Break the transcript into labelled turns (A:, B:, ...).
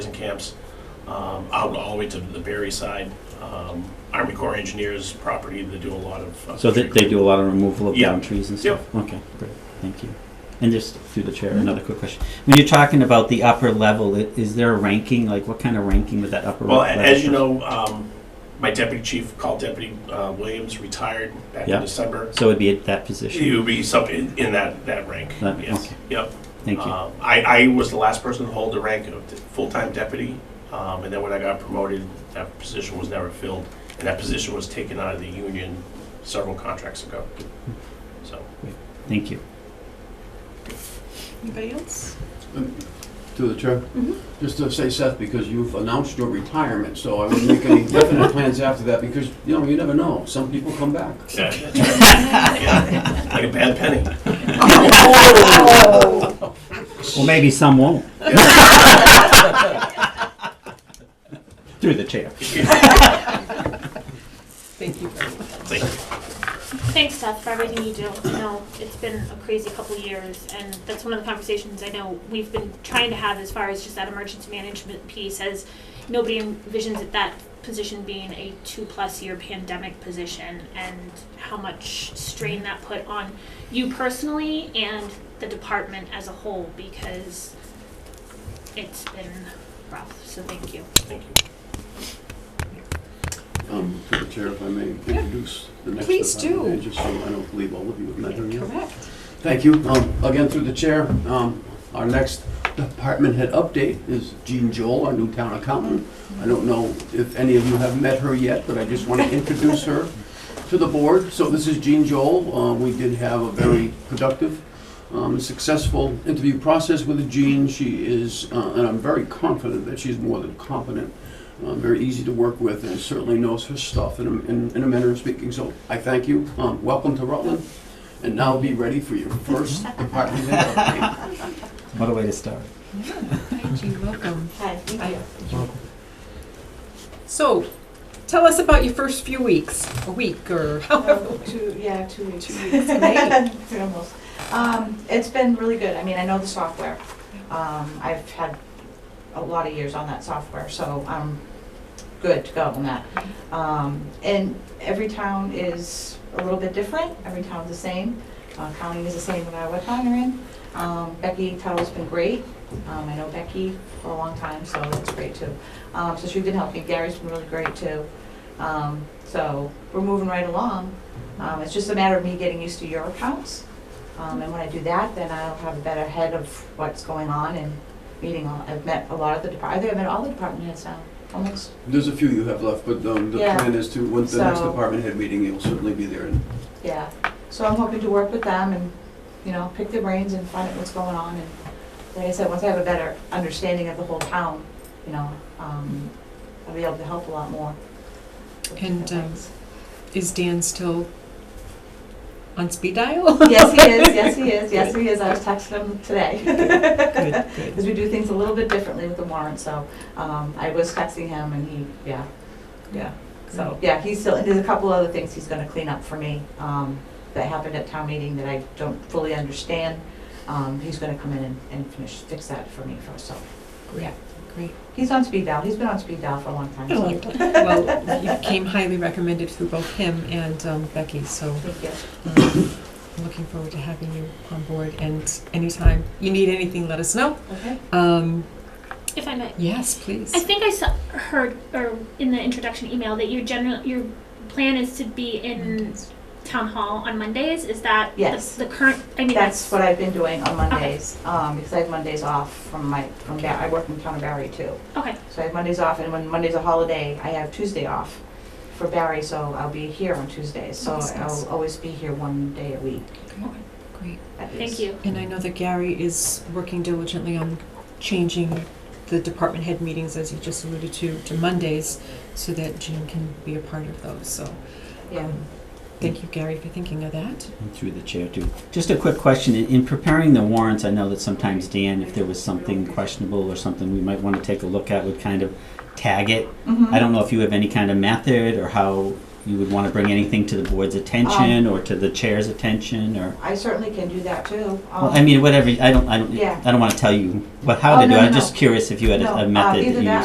A: and camps um, out all the way to the Berry side. Um, Army Corps Engineers property, they do a lot of. uh,
B: So they, they do a lot of removal of
A: Yeah.
B: down trees and stuff? Okay, great, thank you. And just through the chair, another quick question. When you're talking about the upper level, i- is there a ranking, like what kind of ranking would that upper
A: Well,
B: level?
A: a- as you know, um, my deputy chief, called Deputy uh, Williams, retired back
B: Yeah.
A: in December.
B: So it'd be at that
A: He
B: position?
A: would be something in that, that rank,
B: That-
A: yes,
B: okay.
A: yep.
B: Thank you.
A: Um, I, I was the last person to hold the rank of the full-time deputy, um, and then when I got promoted, that position was never filled, and that position was taken out of the union several contracts ago. So,
B: Thank you.
C: Anybody else?
D: To the chair?
C: Mhm.
D: Just to say, Seth, because you've announced your retirement, so I wouldn't make any definite plans after that, because, you know, you never know. Some people come back.
A: yeah, yeah, like a bad penny.
B: Well, maybe some won't. Through the chair.
C: Thank you very much.
A: Thank you.
E: Thanks, Seth, for everything you do. I know it's been a crazy couple of years, and that's one of the conversations I know we've been trying to have as far as just that emergency management piece, as nobody envisions that that position being a two-plus year pandemic position, and how much strain that put on you personally and the department as a whole, because it's been rough, so thank you.
A: Thank you.
D: Um, To the chair, if I may
C: Yeah.
D: introduce the next.
C: Please
D: department
C: do.
D: head, Just so I don't leave all of you with nothing. yet.
C: Correct.
D: Thank you. Um, Again, through the chair, um, our next department head update is Jean Joel, our new town accountant. I don't know if any of you have met her yet, but I just want to introduce her to the board. So this is Jean Joel. Uh, We did have a very productive, um, successful interview process with Jean. She is, uh, and I'm very confident that she's more than competent, uh, very easy to work with, and certainly knows her stuff in a- in in a manner of speaking. So I thank you. Um, Welcome to Rutland. And now be ready for your first department head update.
B: What a way to start.
C: Hi, Jean, welcome.
E: Hi.
C: Hi. So, tell us about your first few weeks, a week or however.
F: Oh, Two, yeah, two weeks.
C: Two weeks, maybe.
F: Three almost. Um, it's been really good. I mean, I know the software. Um, I've had a lot of years on that software, so I'm good to go on that. Um, and every town is a little bit different. Every town's the same. Uh, county is the same no matter what town you're in. Um, Becky Tuttle's been great. Um, I know Becky for a long time, so that's great too. Um, so she's been helping. Gary's been really great too. Um, so we're moving right along. Um, it's just a matter of me getting used to your accounts. Um, and when I do that, then I'll have a better head of what's going on and meeting all, I've met a lot of the depart, I think I've met all the department heads now, almost.
D: There's a few you have left, but um, the
F: Yeah.
D: plan is to, once the next
F: So-
D: department head meeting, you'll certainly be there. And
F: Yeah, so I'm hoping to work with them and, you know, pick their brains and find out what's going on. And like I said, once I have a better understanding of the whole town, you know, um, I'll be able to help a lot more. with
C: And,
F: different
C: um,
F: things.
C: Is Dan still on speed dial?
F: Yes, he is, yes, he is, yes, he is. I was texting him today.
C: Good, good.
F: Because we do things a little bit differently with the warrant, so um, I was texting him and he, yeah, yeah.
C: Mm.
F: So, yeah, he's still, and there's a couple other things he's gonna clean up for me um, that happened at town meeting that I don't fully understand. Um, He's gonna come in and- and finish, fix that for me first, so.
C: Great, great.
F: He's on speed dial, he's been on speed dial for a long time,
C: Been a
F: so.
C: long Well, you came highly recommended through both him and um, Becky, so
F: Thank you.
C: um, I'm looking forward to having you on board. And anytime you need anything, let us know.
F: Okay.
C: Um,
E: If I may,
C: yes, please.
E: I think I saw, heard, or in the introduction email, that your general, your plan is to be in town hall on Mondays, is that the-
F: Yes.
E: the current, I mean,
F: That's
E: that's,
F: what I've been doing on Mondays, um, because I have Mondays off from my, from, Ba- I work in town of Barry too.
E: okay,
F: So I have Mondays off, and when Monday's a holiday, I have Tuesday off for Barry, so I'll be here on Tuesdays. So
C: Nice, nice.
F: I'll always be here one day a week.
C: Great.
F: at
E: thank
F: least.
E: you.
C: And I know that Gary is working diligently on changing the department head meetings, as you just alluded to, to Mondays, so that Jean can be a part of those, so.
F: Yeah.
C: um, Thank you, Gary, for thinking of that.
B: And Through the chair too. Just a quick question, in, in preparing the warrants, I know that sometimes Dan, if there was something questionable or something we might wanna take a look at, would kind of tag it
F: Mhm.
B: I don't know if you have any kind of method or how you would want to bring anything to the board's attention
F: Um,
B: or to the chair's attention or?
F: I certainly can do that too. Um,
B: Well, I mean, whatever, I don't, I don't,
F: Yeah.
B: I don't want to tell you what, how
F: Oh,
B: to do
F: no,
B: it.
F: no,
B: I'm
F: no.
B: just curious if you had
F: No,
B: a-
F: uh,
B: a method that you
F: either
B: used.
F: that